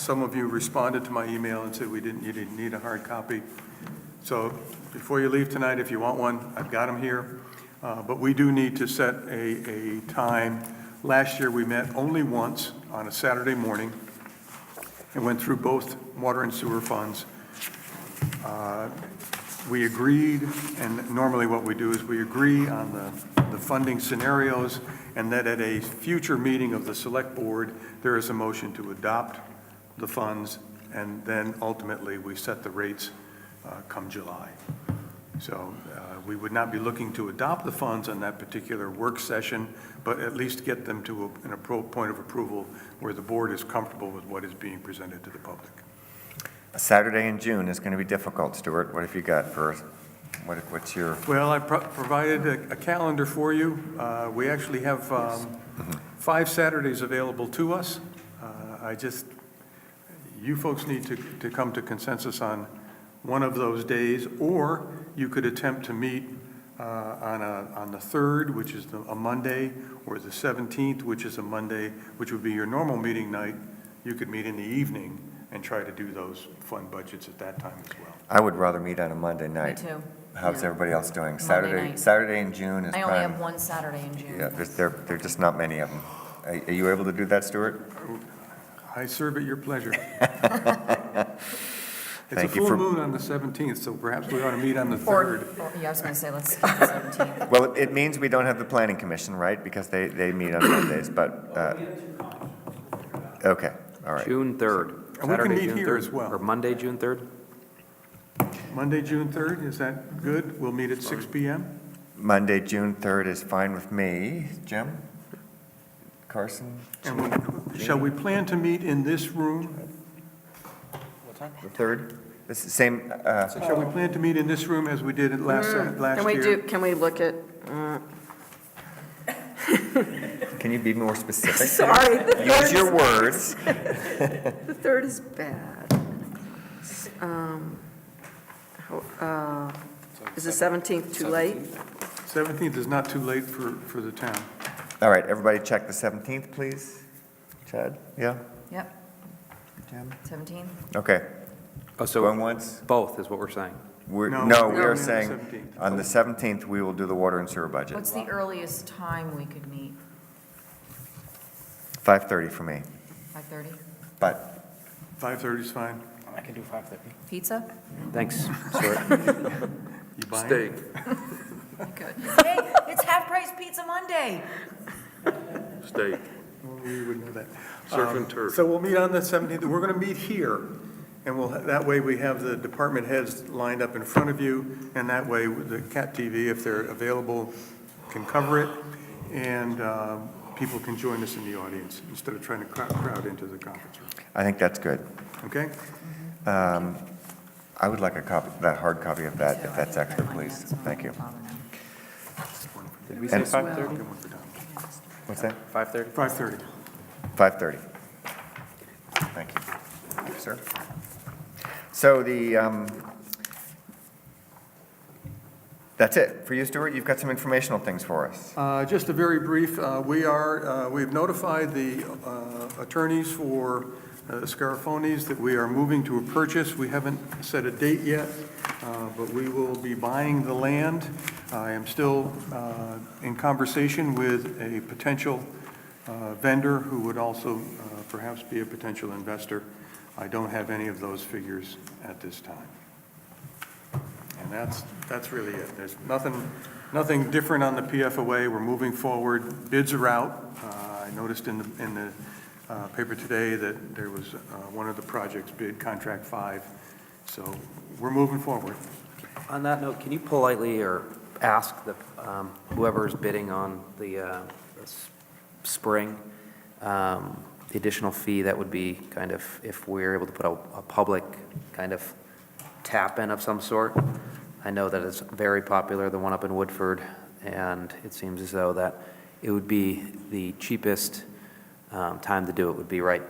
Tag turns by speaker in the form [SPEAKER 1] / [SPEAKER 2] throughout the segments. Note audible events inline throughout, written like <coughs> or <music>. [SPEAKER 1] some of you responded to my email and said we didn't, you didn't need a hard copy. So before you leave tonight, if you want one, I've got them here. Uh, But we do need to set a, a time. Last year, we met only once on a Saturday morning and went through both water and sewer funds. Uh, We agreed, and normally what we do is we agree on the, the funding scenarios, and that at a future meeting of the select board, there is a motion to adopt the funds, and then ultimately, we set the rates uh, come July. So uh, we would not be looking to adopt the funds on that particular work session, but at least get them to a- an appro, point of approval where the board is comfortable with what is being presented to the public.
[SPEAKER 2] A Saturday in June is going to be difficult, Stuart. What have you got for, us? what, what's your,
[SPEAKER 1] Well, I pro- provided a- a calendar for you. Uh, We actually have um, five Saturdays available to us. Uh, I just, you folks need to to come to consensus on one of those days, or you could attempt to meet uh, on a, on the 3rd, which is the- a Monday, or the 17th, which is a Monday, which would be your normal meeting night. You could meet in the evening and try to do those fund budgets at that time as well.
[SPEAKER 2] I would rather meet on a Monday
[SPEAKER 3] Me
[SPEAKER 2] night.
[SPEAKER 3] too.
[SPEAKER 2] How's
[SPEAKER 3] Yeah.
[SPEAKER 2] everybody else doing?
[SPEAKER 3] Monday
[SPEAKER 2] Saturday,
[SPEAKER 3] night.
[SPEAKER 2] Saturday in June is
[SPEAKER 3] I only have
[SPEAKER 2] prime.
[SPEAKER 3] one Saturday in June.
[SPEAKER 2] Yeah, there's, there, there are just not many of them. Are are you able to do that, Stuart?
[SPEAKER 1] I serve at your
[SPEAKER 2] <laughs>
[SPEAKER 1] pleasure. It's a
[SPEAKER 2] Thank you
[SPEAKER 1] full
[SPEAKER 2] for-
[SPEAKER 1] moon on the 17th, so perhaps we ought to meet on the
[SPEAKER 3] Or,
[SPEAKER 1] 3rd.
[SPEAKER 3] or- yeah, I was gonna
[SPEAKER 2] <laughs>
[SPEAKER 3] say, let's skip the 17th.
[SPEAKER 2] Well, it- it means we don't have the planning commission, right? Because they, they meet on <coughs> Mondays, but, uh, okay, all right.
[SPEAKER 4] June 3rd.
[SPEAKER 1] And we can
[SPEAKER 4] Saturday,
[SPEAKER 1] meet
[SPEAKER 4] June
[SPEAKER 1] here
[SPEAKER 4] 3rd,
[SPEAKER 1] as well.
[SPEAKER 4] Or Monday, June 3rd?
[SPEAKER 1] Monday, June 3rd, is that good? We'll meet at 6 PM?
[SPEAKER 2] Monday, June 3rd is fine with me. Jim? Carson?
[SPEAKER 1] And we- shall we plan to meet in this room?
[SPEAKER 2] The 3rd? This is same, uh,
[SPEAKER 1] Shall we plan to meet in this room as we did it last,
[SPEAKER 5] Mm,
[SPEAKER 1] last
[SPEAKER 5] Can we do,
[SPEAKER 1] year?
[SPEAKER 5] can we look at, uh,
[SPEAKER 2] can you be more
[SPEAKER 3] <laughs>
[SPEAKER 2] specific?
[SPEAKER 5] sorry, the
[SPEAKER 2] Use
[SPEAKER 5] third,
[SPEAKER 2] your words.
[SPEAKER 5] is- the third is bad. Um, ho- uh, Is the 17th too late?
[SPEAKER 1] 17th is not too late for, for the town.
[SPEAKER 2] All right, everybody check the 17th, please. Chad? Yeah?
[SPEAKER 3] Yep,
[SPEAKER 2] Jim?
[SPEAKER 3] 17th.
[SPEAKER 2] Okay, going
[SPEAKER 4] Oh, so
[SPEAKER 2] once.
[SPEAKER 4] both is what we're saying.
[SPEAKER 2] We're,
[SPEAKER 1] No, we're
[SPEAKER 2] no, we
[SPEAKER 1] doing it
[SPEAKER 2] are
[SPEAKER 1] on the
[SPEAKER 2] saying,
[SPEAKER 1] 17th.
[SPEAKER 2] on the 17th, we will do the water and sewer budget.
[SPEAKER 3] What's the earliest time we could meet?
[SPEAKER 2] 5:30 for me,
[SPEAKER 3] 5:30?
[SPEAKER 2] but
[SPEAKER 1] 5:30 is fine.
[SPEAKER 6] I can do 5:30.
[SPEAKER 3] Pizza?
[SPEAKER 5] <laughs>
[SPEAKER 1] <laughs>
[SPEAKER 4] Thanks, Stuart.
[SPEAKER 1] You buying?
[SPEAKER 3] Good. Hey, it's half-price pizza Monday.
[SPEAKER 7] Steak,
[SPEAKER 1] We would know that.
[SPEAKER 7] surf
[SPEAKER 1] Um,
[SPEAKER 7] and turf.
[SPEAKER 1] So we'll meet on the 17th, we're going to meet here, and we'll, that way we have the department heads lined up in front of you, and that way with the CAT TV, if they're available, can cover it, and uh, people can join us in the audience instead of trying to crowd- crowd into the conference room,
[SPEAKER 2] I think that's good.
[SPEAKER 1] okay?
[SPEAKER 2] Um, I would like a copy, that hard copy of that,
[SPEAKER 3] So I
[SPEAKER 2] if that's
[SPEAKER 3] think I
[SPEAKER 2] extra,
[SPEAKER 3] might
[SPEAKER 2] please.
[SPEAKER 3] have some
[SPEAKER 2] Thank you.
[SPEAKER 3] problem now.
[SPEAKER 4] Did we say
[SPEAKER 2] And-
[SPEAKER 4] 5:30?
[SPEAKER 2] What's that?
[SPEAKER 4] 5:30?
[SPEAKER 1] 5:30.
[SPEAKER 2] 5:30. Thank you. Thank you, sir. So the, um, that's it for you, Stuart. You've got some informational things for us.
[SPEAKER 1] Uh, Just a very brief, uh, we are, uh, we've notified the uh, attorneys for uh, Scarafonis that we are moving to a purchase. We haven't set a date yet, uh, but we will be buying the land. I am still uh, in conversation with a potential uh, vendor who would also uh, perhaps be a potential investor. I don't have any of those figures at this time. And that's, that's really it. There's nothing, nothing different on the PFOA. We're moving forward. Bids are out. Uh, I noticed in the, in the uh, paper today that there was uh, one of the projects bid, Contract 5. So we're moving forward.
[SPEAKER 4] On that note, can you politely or ask the, um, whoever's bidding on the uh, the s- spring, um, the additional fee that would be kind of, if we're able to put a, a public kind of tap-in of some sort? I know that it's very popular, the one up in Woodford, and it seems as though that it would be the cheapest um, time to do it would be right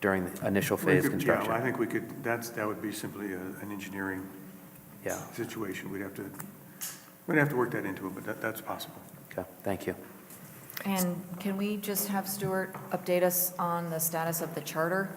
[SPEAKER 4] during the initial phase
[SPEAKER 1] We could- yeah, I
[SPEAKER 4] construction.
[SPEAKER 1] think we could, that's, that would be simply a- an engineering
[SPEAKER 4] Yeah,
[SPEAKER 1] situation. We'd have to, we'd have to work that into it, but that, that's possible.
[SPEAKER 4] okay, thank you.
[SPEAKER 3] And can we just have Stuart update us on the status of the charter?